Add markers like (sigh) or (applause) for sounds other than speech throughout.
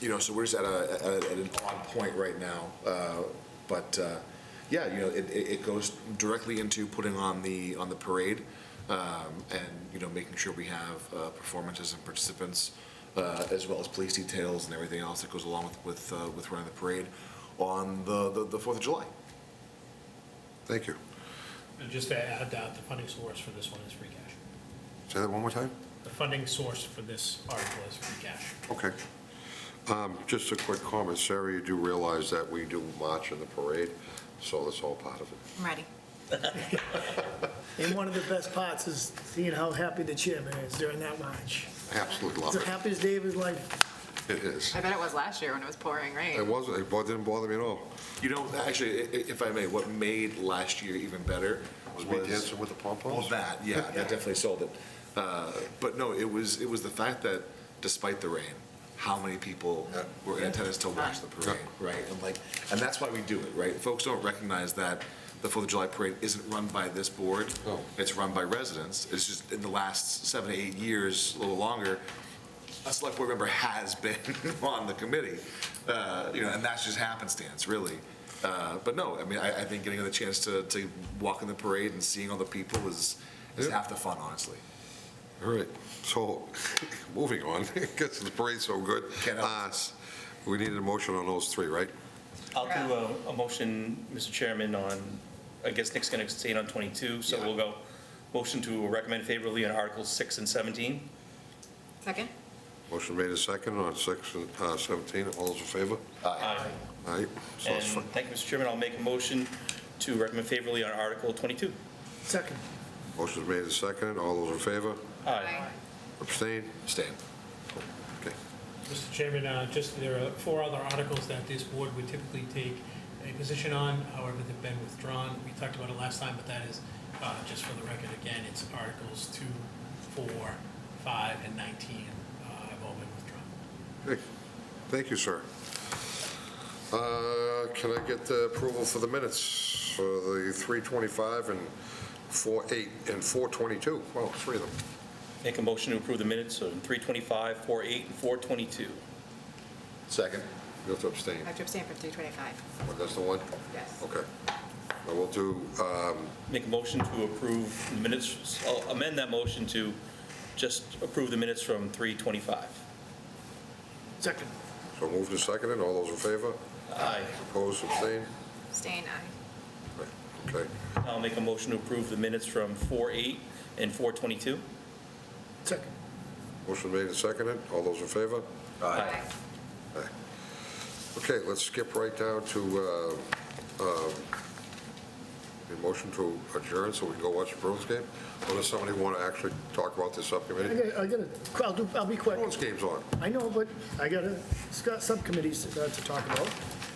you know, so we're just at a, at a- at an odd point right now. Uh, But, uh, yeah, you know, it, it it goes directly into putting on the, on the parade um, and, you know, making sure we have uh, performances and participants uh, as well as police details and everything else that goes along with, with, uh, with running the parade on the, the- the Fourth of July. Thank you. And just to add that, the funding source for this one is free cash. Say that one more time? The funding source for this article is free cash. Okay. Um, Just a quick comment, Sarah, you do realize that we do march in the parade, so that's all part of it. I'm ready. And one of the best parts is seeing how happy the chairman is during that march. I Absolutely It's love the it. happiest day of his life. It is. I bet it was last year when it was pouring rain. It wasn't, it didn't bother me at all. You know, actually, i- i- if I may, what made last year even better Was was. me dancing with the Well, pom-poms? that, yeah, that definitely sold it. Uh, But no, it was, it was the fact that despite the rain, how many people Yeah. were in attendance to watch the parade, right? And like, and that's why we do it, right? Folks don't recognize that the Fourth of July Parade isn't run by this board. No. It's run by residents. It's just in the last seven, eight years, a little longer, a select board member has (laughs) been on the committee, uh, you know, and that's just happenstance, really. Uh, But no, I mean, I, I think getting the chance to, to walk in the parade and seeing all the people is, is Yeah. half the fun, honestly. All right, so, (laughs) moving on, (laughs) because the parade's so good. Can't help Uh, We needed a motion on those three, right? I'll do a, a motion, Mr. Chairman, on, I guess Nick's gonna stay on 22, so we'll go, motion to recommend favorably on Articles 6 and 17. Second? Motion made and second on six and uh, 17, all those in favor? Aye. All right, so And it's fi- thank you, Mr. Chairman, I'll make a motion to recommend favorably on Article 22. Second, motion's made and second, all those in favor? Aye. Abstain? Stan? Okay. Mr. Chairman, uh, just, there are four other articles that this board would typically take a position on, however, they've been withdrawn. We talked about it last time, but that is, uh, just for the record, again, it's Articles 2, 4, 5, and 19 uh, have all been withdrawn. Okay. Thank you, sir. Uh, Can I get the approval for the minutes for the 3:25 and 4:08 and 4:22? Well, three of them. Make a motion to approve the minutes on 325, 48, and 422. Second. You have to abstain. I have to abstain from 325. Oh, That's the one? Yes. Okay. I will do, um, Make a motion to approve the minutes, I'll amend that motion to just approve the minutes from 325. second. so move to second, and all those in favor? Aye. Opposed, abstained? Abstain, aye. Right, Okay. I'll make a motion to approve the minutes from 48 and 422. Second. Motion made and seconded. All those in favor? Aye. Okay, let's skip right down to uh, um, the motion to adjourn so we can go watch the Bruins game. Or does somebody want to actually talk about this I subcommittee? gotta, I gotta, I'll do, I'll be quick. Bruins game's on. I know, but I gotta, it's got subcommittees to uh, to talk about.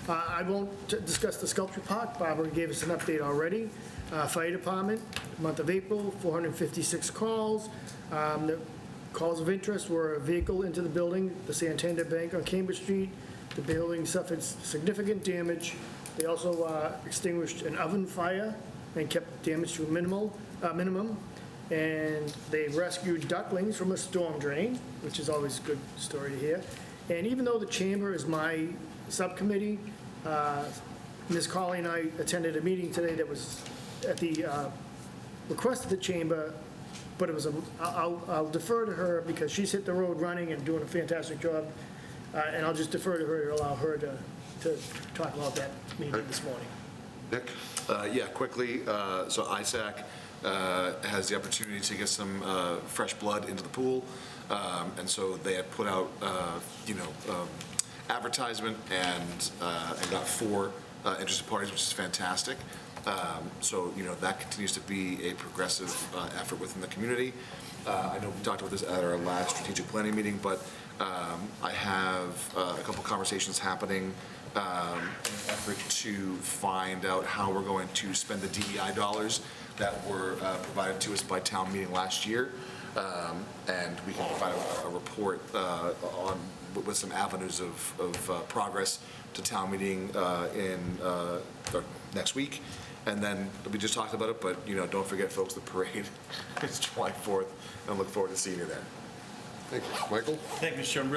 Uh, I won't t- discuss the sculpture park, Barbara gave us an update already. Uh, Fire department, month of April, 456 calls. Um, The Calls of interest were a vehicle into the building, the Santander Bank on Cambridge Street. The building suffered significant damage. They also uh, extinguished an oven fire and kept damage to a minimal, uh, minimum. And they rescued ducklings from a storm drain, which is always a good story to hear. And even though the chamber is my subcommittee, uh, Ms. Colley and I attended a meeting today that was at the uh, request of the chamber, but it was, a- I'll I'll defer to her because she's hit the road running and doing a fantastic job. uh, And I'll just defer to her to allow her to, to talk about that meeting this morning. Nick? Uh, Yeah, quickly, uh, so ISAC uh, has the opportunity to get some uh, fresh blood into the pool, Um, and so they had put out, uh, you know, um, advertisement and uh, and got four uh, interested parties, which is fantastic. Um, So, you know, that continues to be a progressive uh, effort within the community. Uh, I know we talked about this at our last strategic planning meeting, but um, I have uh, a couple conversations happening um, in an effort to find out how we're going to spend the DEI dollars that were uh, provided to us by town meeting last year. Um, And we can provide a- a report uh, on, with- with some avenues of, of uh, progress to town meeting uh, in, uh, or next week. And then, we just talked about it, but, you know, don't forget, folks, the parade (laughs) is July 4th, and I look forward to seeing you there. Thank you. Michael? Thank you, Mr. Chairman. Really